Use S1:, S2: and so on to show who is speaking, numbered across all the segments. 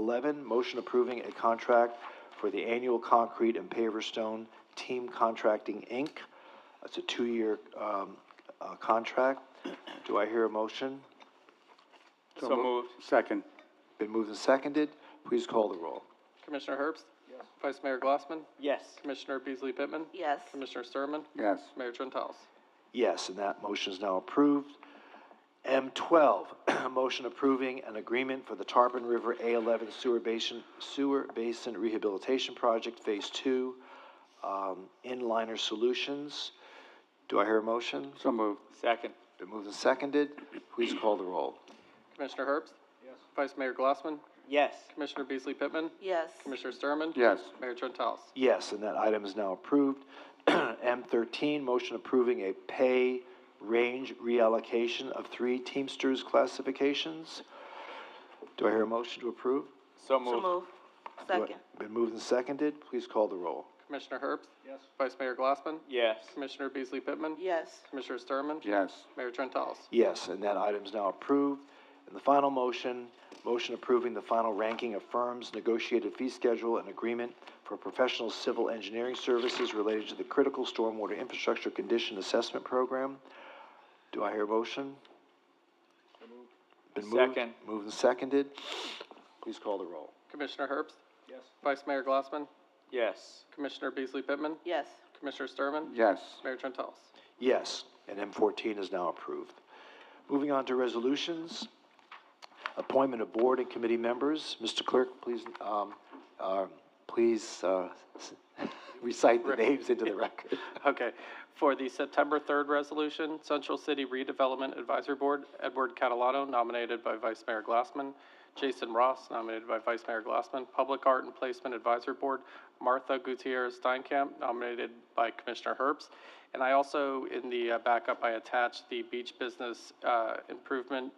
S1: eleven, motion approving a contract for the annual concrete and paver stone team contracting, Inc. That's a two-year, um, uh, contract. Do I hear a motion?
S2: So moved.
S3: Second.
S1: Been moved and seconded. Please call the roll.
S2: Commissioner Herbst? Yes. Vice Mayor Glassman?
S4: Yes.
S2: Commissioner Beasley Pittman?
S5: Yes.
S2: Commissioner Sturman?
S3: Yes.
S2: Mayor Trentals?
S1: Yes, and that motion is now approved. M twelve, motion approving an agreement for the Tarpon River A eleven sewer basin, sewer basin rehabilitation project, phase two, um, inliner solutions. Do I hear a motion?
S3: So moved.
S4: Second.
S1: Been moved and seconded. Please call the roll.
S2: Commissioner Herbst? Yes. Vice Mayor Glassman?
S4: Yes.
S2: Commissioner Beasley Pittman?
S5: Yes.
S2: Commissioner Sturman?
S3: Yes.
S2: Mayor Trentals?
S1: Yes, and that item is now approved. M thirteen, motion approving a pay range reallocation of three Teamsters classifications. Do I hear a motion to approve?
S4: So
S5: So
S4: moved.
S5: move. Second.
S1: Been moved and seconded. Please call the roll.
S2: Commissioner Herbst? Yes. Vice Mayor Glassman?
S4: Yes.
S2: Commissioner Beasley Pittman?
S5: Yes.
S2: Commissioner Sturman?
S3: Yes.
S2: Mayor Trentals?
S1: Yes, and that item is now approved. And the final motion, motion approving the final ranking of firms, negotiated fee schedule, and agreement for professional civil engineering services related to the critical stormwater infrastructure condition assessment program. Do I hear a motion? Been moved-
S4: Second.
S1: Moved and seconded. Please call the roll.
S2: Commissioner Herbst? Yes. Vice Mayor Glassman?
S4: Yes.
S2: Commissioner Beasley Pittman?
S5: Yes.
S2: Commissioner Sturman?
S3: Yes.
S2: Mayor Trentals?
S1: Yes, and M fourteen is now approved. Moving on to resolutions, appointment of board and committee members. Mr. Clerk, please, um, uh, please, uh, s- recite the names into the record.
S2: Okay, for the September third resolution, Central City Redevelopment Advisory Board, Edward Catalano, nominated by Vice Mayor Glassman, Jason Ross, nominated by Vice Mayor Glassman, Public Art and Placement Advisory Board, Martha Gutierrez Steinkamp, nominated by Commissioner Herbst. And I also, in the uh, backup, I attached the Beach Business, uh, Improvement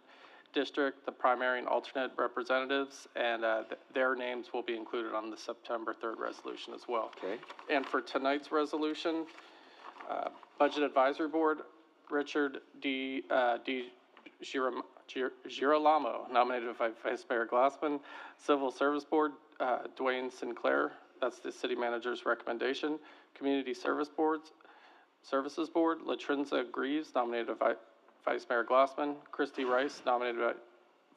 S2: District, the primary and alternate representatives, and, uh, th- their names will be included on the September third resolution as well.
S1: Okay.
S2: And for tonight's resolution, uh, Budget Advisory Board, Richard D. uh, D. Giram- Gir- Girolamo, nominated by Vice Mayor Glassman. Civil Service Board, uh, Dwayne Sinclair, that's the city manager's recommendation. Community Service Boards, Services Board, Latrenza Greaves, nominated by Vice Mayor Glassman. Christy Rice, nominated by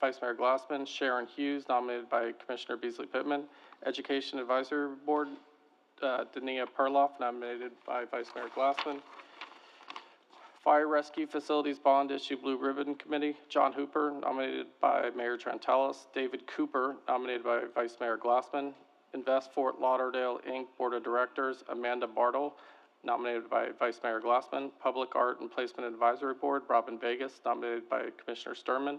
S2: Vice Mayor Glassman. Sharon Hughes, nominated by Commissioner Beasley Pittman. Education Advisory Board, uh, Dania Perloff, nominated by Vice Mayor Glassman. Fire Rescue Facilities Bond Issue Blue Ribbon Committee, John Hooper, nominated by Mayor Trentalis. David Cooper, nominated by Vice Mayor Glassman. Invest Fort Lauderdale, Inc. Board of Directors, Amanda Bartle, nominated by Vice Mayor Glassman. Public Art and Placement Advisory Board, Robin Vegas, nominated by Commissioner Sturman.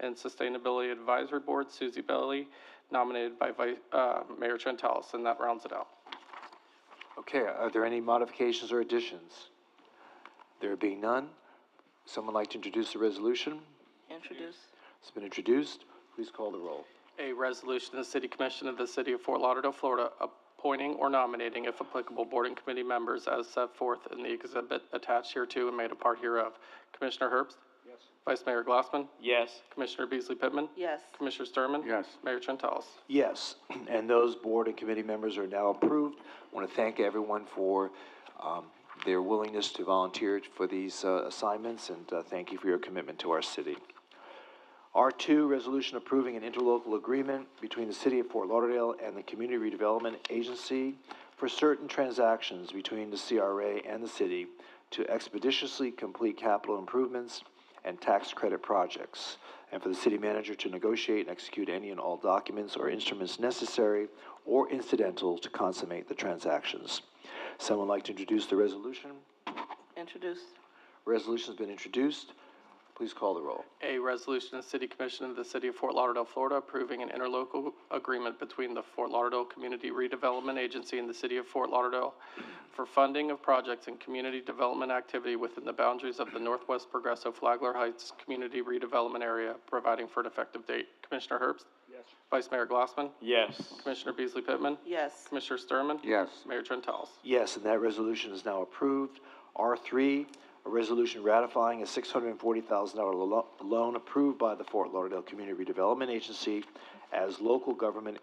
S2: And Sustainability Advisory Board, Susie Bailey, nominated by Vice, uh, Mayor Trentalis, and that rounds it out.
S1: Okay, are there any modifications or additions? There being none, someone like to introduce the resolution?
S5: Introduce.
S1: It's been introduced. Please call the roll.
S2: A resolution of the City Commission of the City of Fort Lauderdale, Florida, appointing or nominating, if applicable, board and committee members as set forth in the exhibit attached hereto and made a part hereof. Commissioner Herbst? Yes. Vice Mayor Glassman?
S4: Yes.
S2: Commissioner Beasley Pittman?
S5: Yes.
S2: Commissioner Sturman?
S3: Yes.
S2: Mayor Trentalis?
S1: Yes, and those board and committee members are now approved. I want to thank everyone for um, their willingness to volunteer for these uh, assignments, and uh, thank you for your commitment to our city. R2, resolution approving an interlocal agreement between the City of Fort Lauderdale and the Community Redevelopment Agency for certain transactions between the CRA and the city to expeditiously complete capital improvements and tax credit projects, and for the city manager to negotiate and execute any and all documents or instruments necessary or incidental to consummate the transactions. Someone like to introduce the resolution?
S5: Introduce.
S1: Resolution's been introduced. Please call the roll.
S2: A resolution of the City Commission of the City of Fort Lauderdale, Florida, approving an interlocal agreement between the Fort Lauderdale Community Redevelopment Agency and the City of Fort Lauderdale for funding of projects and community development activity within the boundaries of the Northwest Progresso Flagler Heights Community Redevelopment Area, providing for an effective date. Commissioner Herbst? Yes. Vice Mayor Glassman?
S4: Yes.
S2: Commissioner Beasley Pittman?
S5: Yes.
S2: Commissioner Sturman?
S3: Yes.
S2: Mayor Trentalis?
S1: Yes, and that resolution is now approved. R3, a resolution ratifying a $640,000 lo- loan approved by the Fort Lauderdale Community Redevelopment Agency as local government